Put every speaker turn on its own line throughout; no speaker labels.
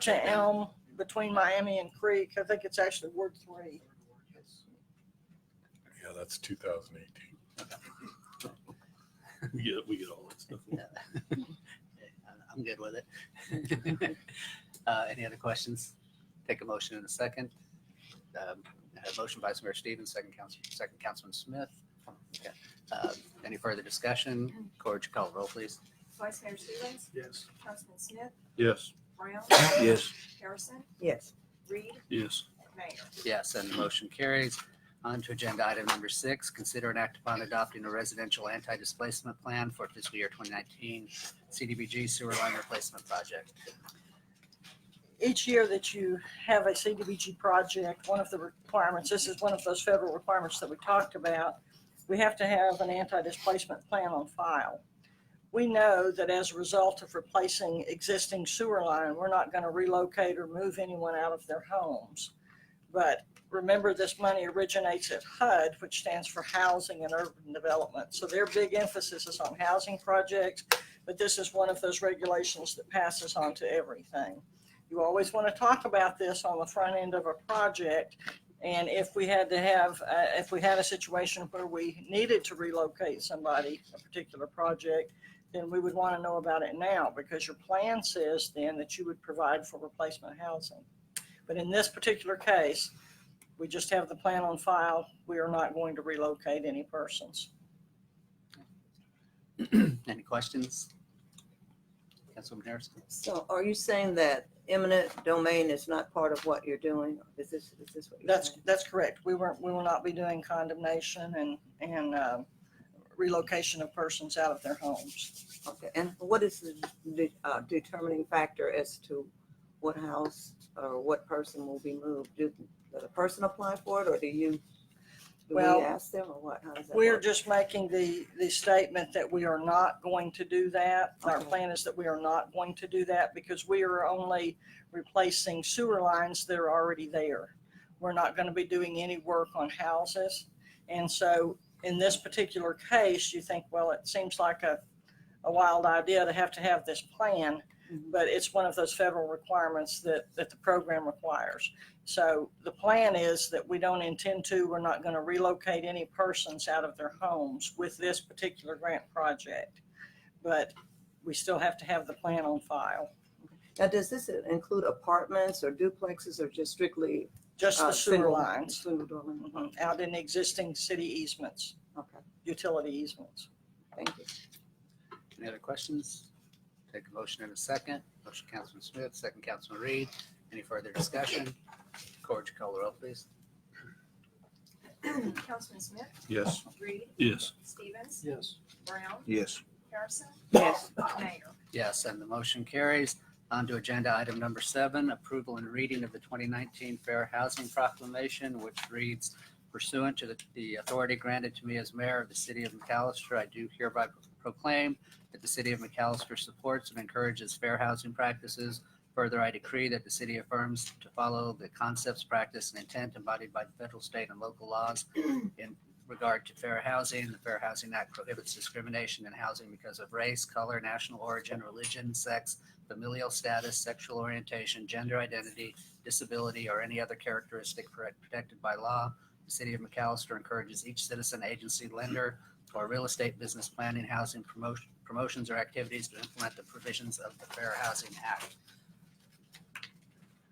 to Elm between Miami and Creek. I think it's actually Ward Three.
Yeah, that's 2018.
We get, we get all that stuff.
I'm good with it. Uh, Any other questions? Take a motion in a second. Um, I have a Motion Vice Mayor Stevens, second Council, second Councilman Smith. Okay. Um, Any further discussion? Corge, you call the roll, please.
Vice Mayor Stevens,
Yes.
Councilman Smith,
Yes.
Brown,
Yes.
Harrison,
Yes.
Reed,
Yes.
Mayor.
Yes, and the motion carries. On to agenda item number six, consider and act upon adopting a residential anti-displacement plan for fiscal year 2019 CDBG sewer line replacement project.
Each year that you have a CDBG project, one of the requirements, this is one of those federal requirements that we talked about, we have to have an anti-displacement plan on file. We know that as a result of replacing existing sewer line, we're not going to relocate or move anyone out of their homes. But remember, this money originates at HUD, which stands for Housing and Urban Development. So their big emphasis is on housing projects, but this is one of those regulations that passes on to everything. You always want to talk about this on the front end of a project. And if we had to have, uh, if we had a situation where we needed to relocate somebody, a particular project, then we would want to know about it now because your plan says then that you would provide for replacement housing. But in this particular case, we just have the plan on file. We are not going to relocate any persons.
Any questions? Councilwoman Harrison?
So are you saying that eminent domain is not part of what you're doing? Is this, is this what you're
That's,
saying?
that's correct. We weren't, we will not be doing condemnation and, and uh, relocation of persons out of their homes.
Okay, and what is the de- uh, determining factor as to what house or what person will be moved? Do does the person apply for it or do you, do we
Well,
ask them or what? How does that
We're
work?
just making the, the statement that we are not going to do that. Our
Okay.
plan is that we are not going to do that because we are only replacing sewer lines that are already there. We're not going to be doing any work on houses. And so in this particular case, you think, well, it seems like a, a wild idea to have to have this plan,
Mhm.
but it's one of those federal requirements that, that the program requires. So the plan is that we don't intend to, we're not going to relocate any persons out of their homes with this particular grant project. But we still have to have the plan on file,
Now, does this include apartments or duplexes or just strictly?
just the
uh,
sewer
single-
lines
Single dwelling,
mhm, out in existing city easements,
okay,
utility easements.
thank you.
Any other questions? Take a motion in a second. Motion Councilman Smith, second Councilman Reed. Any further discussion? Corge, call the roll, please.
Councilman Smith,
Yes.
Reed,
Yes.
Stevens,
Yes.
Brown,
Yes.
Harrison,
Yes,
Mayor.
Yes, and the motion carries. On to agenda item number seven, approval and reading of the 2019 Fair Housing Proclamation, which reads pursuant to the- the authority granted to me as mayor of the city of McAllister, I do hereby proclaim that the city of McAllister supports and encourages fair housing practices. Further, I decree that the city affirms to follow the concepts, practice, and intent embodied by the federal, state, and local laws in regard to fair housing. The Fair Housing Act prohibits discrimination in housing because of race, color, national origin, religion, sex, familial status, sexual orientation, gender identity, disability, or any other characteristic pro- protected by law. The City of McAllister encourages each citizen, agency, lender, or real estate business planning, housing promotion, promotions, or activities to implement the provisions of the Fair Housing Act.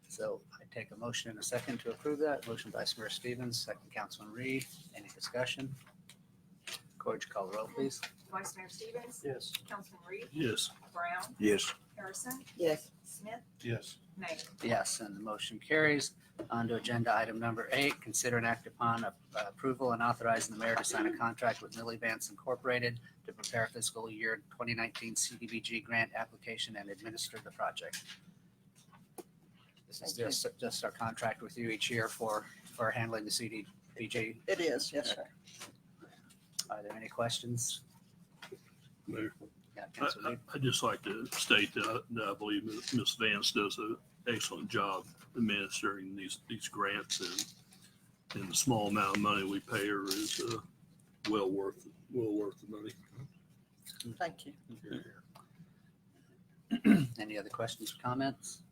So I take a motion in a second to approve that. Motion Vice Mayor Stevens, second Councilman Reed. Any discussion? Corge, call the roll, please.
Vice Mayor Stevens,
Yes.
Councilman Reed,
Yes.
Brown,
Yes.
Harrison,
yes,
Smith,
Yes.
Mayor.
Yes, and the motion carries. On to agenda item number eight, consider and act upon a- uh, approval and authorizing the mayor to sign a contract with Millie Vance Incorporated to prepare fiscal year 2019 CDBG grant application and administer the project. This is just, just our contract with you each year for, for handling the CDBG.
It is, yes, sir.
Are there any questions?
Mayor,
Yeah,
I,
Councilman
I, I'd just like to state that, I- that I believe Ms. Vance does an excellent job administering these, these grants and, and the small amount of money we pay her is, uh, well worth, well worth the money.
Thank you.
Any other questions or comments?